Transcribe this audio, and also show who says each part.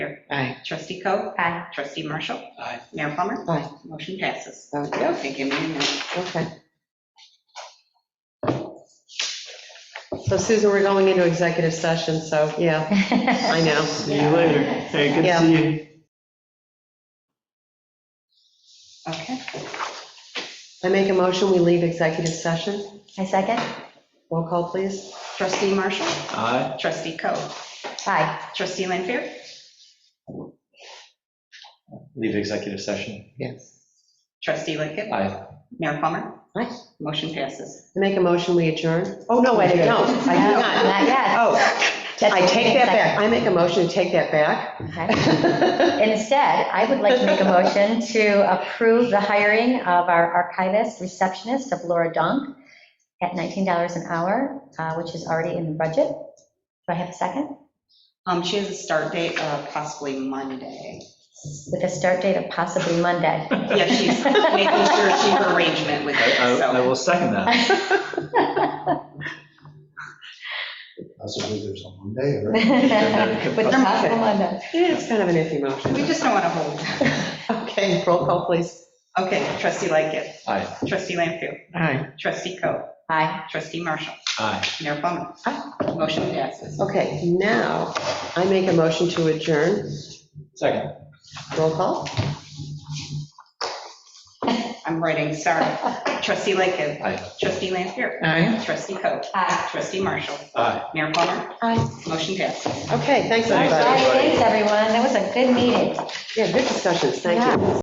Speaker 1: favor?
Speaker 2: Aye.
Speaker 1: Trustee Coe?
Speaker 3: Aye.
Speaker 1: Trustee Marshall?
Speaker 4: Aye.
Speaker 1: Mayor Plummer?
Speaker 2: Aye.
Speaker 1: Motion passes.
Speaker 2: Okay,
Speaker 1: Okay, give me a minute.
Speaker 2: okay. So Susan, we're going into executive session, so, yeah, I know.
Speaker 4: See you later. Hey, good to
Speaker 2: Yeah.
Speaker 4: see you.
Speaker 1: Okay.
Speaker 2: I make a motion, we leave executive session.
Speaker 3: I second.
Speaker 2: Roll call, please.
Speaker 1: Trustee Marshall?
Speaker 4: Aye.
Speaker 1: Trustee Coe?
Speaker 3: Aye.
Speaker 1: Trustee Lanfair?
Speaker 5: leave executive session.
Speaker 2: Yes.
Speaker 1: Trustee Lickett?
Speaker 5: Aye.
Speaker 1: Mayor Plummer?
Speaker 2: Aye.
Speaker 1: Motion passes.
Speaker 2: I make a motion, we adjourn. Oh, no, I don't. I do
Speaker 3: No,
Speaker 2: not.
Speaker 3: Not yet.
Speaker 2: Oh,
Speaker 3: That's
Speaker 2: I take that back. I make a motion to take that back.
Speaker 3: Okay. Instead, I would like to make a motion to approve the hiring of our archivist receptionist of Laura Donk at $19 an hour, uh, which is already in the budget. Do I have a second?
Speaker 1: Um, she has a start date of possibly Monday.
Speaker 3: With a start date of possibly Monday.
Speaker 1: Yeah, she's making sure she her arrangement with it,
Speaker 4: I I
Speaker 1: so.
Speaker 4: will second that.
Speaker 6: Possibly there's a Monday or.
Speaker 3: With a possible Monday.
Speaker 2: Yeah, It's kind of an iffy
Speaker 1: We
Speaker 2: motion.
Speaker 1: just don't want to hold.
Speaker 2: Okay, roll call, please.
Speaker 1: Okay, Trustee Lickett?
Speaker 5: Aye.
Speaker 1: Trustee Lanfair?
Speaker 2: Aye.
Speaker 1: Trustee Coe?
Speaker 3: Aye.
Speaker 1: Trustee Marshall?
Speaker 4: Aye.
Speaker 1: Mayor Plummer? Motion passes.
Speaker 2: Okay, now, I make a motion to adjourn.
Speaker 5: Second.
Speaker 2: Roll call.
Speaker 1: I'm writing, sorry. Trustee Lickett?
Speaker 5: Aye.
Speaker 1: Trustee Lanfair?
Speaker 2: Aye.
Speaker 1: Trustee Coe?
Speaker 3: Aye.
Speaker 1: Trustee Marshall?
Speaker 5: Aye.
Speaker 1: Mayor Plummer?
Speaker 2: Aye.
Speaker 1: Motion passes.
Speaker 2: Okay, thanks,
Speaker 3: All
Speaker 2: everybody.
Speaker 3: right, thanks, everyone. That was a good meeting.
Speaker 2: Yeah, good discussions, thank you.